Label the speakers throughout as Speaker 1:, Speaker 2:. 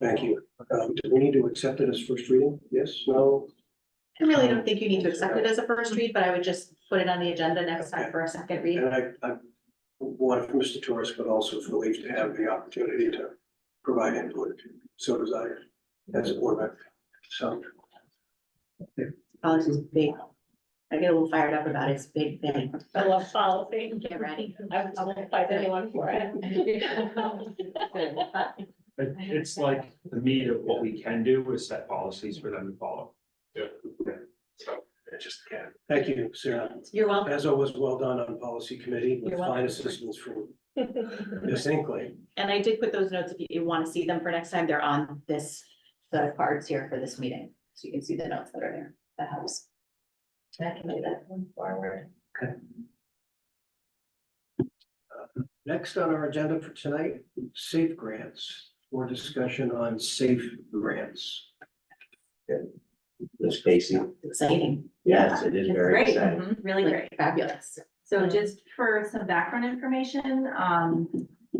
Speaker 1: Thank you. Um, do we need to accept it as first reading? Yes, no?
Speaker 2: I really don't think you need to accept it as a first read, but I would just put it on the agenda next time for a second read.
Speaker 1: And I, I want for Mr. Torres, but also for Leaf to have the opportunity to provide input, if so desired, as a board member. So,
Speaker 2: Politics is big. I get a little fired up about it. It's a big thing.
Speaker 3: I love policy.
Speaker 2: Get ready.
Speaker 3: I I won't fight anyone for it.
Speaker 4: It, it's like the meat of what we can do is set policies for them to follow.
Speaker 5: I just can't.
Speaker 1: thank you, Sarah.
Speaker 2: You're welcome.
Speaker 1: As always, well done on policy committee with
Speaker 2: You're welcome.
Speaker 1: fine assistance from Ms. Inkley.
Speaker 2: And I did put those notes if you- you want to see them for next time. They're on this set of cards here for this meeting. So you can see the notes that are there. That helps. I can do that one forward.
Speaker 1: Next on our agenda for tonight, safe grants, or discussion on safe grants.
Speaker 6: Ms. Casey.
Speaker 2: Exciting.
Speaker 6: Yes, it is very
Speaker 7: Great,
Speaker 6: exciting.
Speaker 7: mhm, really
Speaker 2: Like
Speaker 7: great.
Speaker 2: fabulous.
Speaker 7: So just for some background information, um,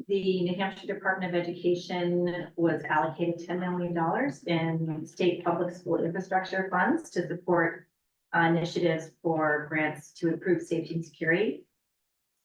Speaker 7: the New Hampshire Department of Education was allocated ten million dollars in state public school infrastructure funds to support uh, initiatives for grants to improve safety and security.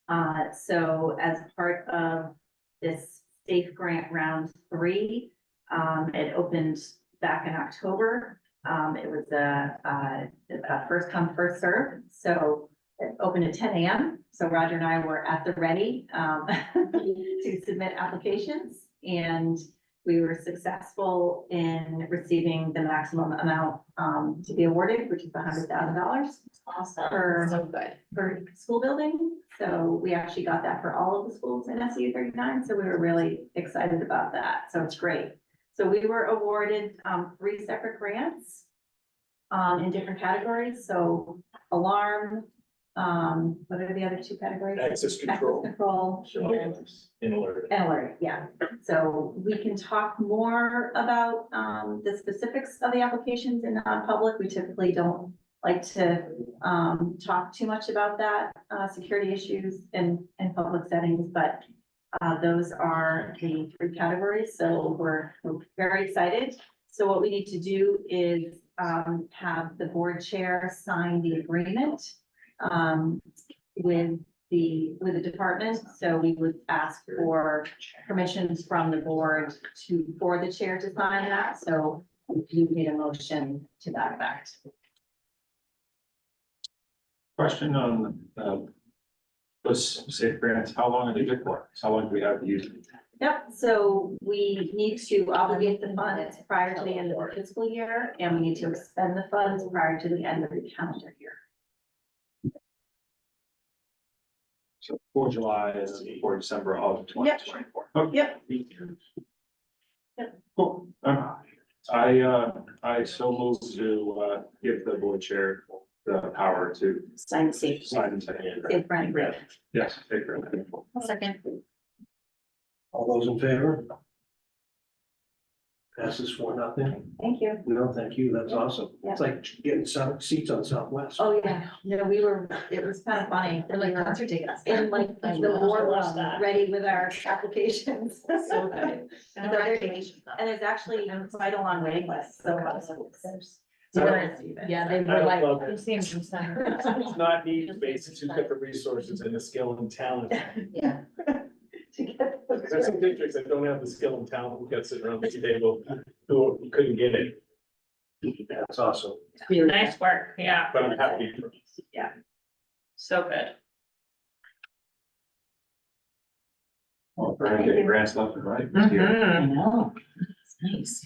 Speaker 7: Uh, so as part of this safe grant round three, um, it opened back in October. Um, it was a, uh, a first come, first served. So it opened at ten AM, so Roger and I were at the ready um, to submit applications. And we were successful in receiving the maximum amount um, to be awarded, which is hundred thousand dollars
Speaker 2: Awesome. So good.
Speaker 7: for school building. So we actually got that for all of the schools in SU thirty-nine, so we were really excited about that, so it's great. So we were awarded um, three separate grants um, in different categories, so alarm, um, what are the other two categories?
Speaker 5: Access
Speaker 7: Access
Speaker 5: control.
Speaker 7: Control and
Speaker 5: In order.
Speaker 7: and alert, yeah. So we can talk more about um the specifics of the applications in non-public. We typically don't like to um talk too much about that, uh, security issues in in public settings, but uh, those are the three categories, so we're we're very excited. So what we need to do is um have the board chair sign the agreement um with the, with the department, so we would ask for permissions from the board to, for the chair to sign that, so you need a motion to that effect.
Speaker 4: Question on, uh, those safe grants, how long are they good for? How long do we have to use? them?
Speaker 7: Yep, so we need to obligate the funds prior to the end of the fiscal year, and we need to expend the funds prior to the end of the calendar year.
Speaker 4: So for July and for December of twenty
Speaker 7: Yep.
Speaker 4: twenty-four.
Speaker 7: Yep.
Speaker 4: Cool. Um, I, uh, I so move to, uh, give the board chair the power to
Speaker 2: Sign the safe.
Speaker 4: sign and take.
Speaker 7: Safe running.
Speaker 4: Yes, take grant.
Speaker 2: Second.
Speaker 1: All those in favor? Passes for nothing.
Speaker 7: Thank you.
Speaker 1: No, thank you. That's awesome.
Speaker 7: Yeah.
Speaker 1: It's like getting some seats on Southwest.
Speaker 7: Oh, yeah, no, we were, it was kind of funny, and like, concert tickets, and like,
Speaker 2: I
Speaker 7: the
Speaker 2: know.
Speaker 7: board
Speaker 3: I
Speaker 7: was
Speaker 3: love that.
Speaker 7: ready with our applications.
Speaker 2: So good.
Speaker 7: Congratulations. And there's actually quite a long waiting list, so.
Speaker 3: Yeah, they
Speaker 5: I love it. It's
Speaker 3: were.
Speaker 5: not need based, it's who's got the resources and the skill and talent.
Speaker 2: Yeah.
Speaker 5: There's some districts that don't have the skill and talent, who got sitting around the table, who couldn't get it,
Speaker 1: That's awesome.
Speaker 2: Really good.
Speaker 3: Nice work, yeah,
Speaker 5: but I'm happy.
Speaker 3: so good.
Speaker 4: Well, we're gonna get grants left and right.
Speaker 3: Mm-hmm.
Speaker 5: Mm-hmm.
Speaker 2: I know. It's Nice.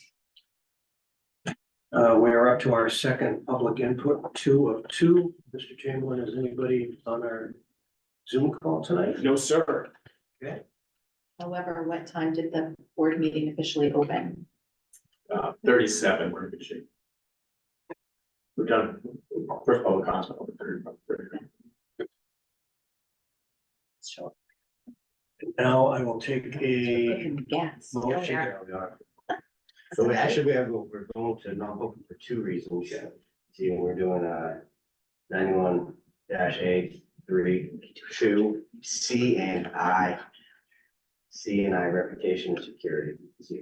Speaker 1: Uh, we are up to our second public input, two of two. Mr. Chamberlain, is anybody on our Zoom call tonight?
Speaker 5: No, sir.
Speaker 2: However, what time did the board meeting officially open?
Speaker 5: Uh, thirty-seven, we're in good shape. We've done first public comment.
Speaker 1: Now I will take a
Speaker 2: Cooking gas.
Speaker 1: motion.
Speaker 6: So we actually, we have, we're going to non-public for two reasons. See, we're doing a ninety-one dash A three, two, C and I. C and I reputation and security. See,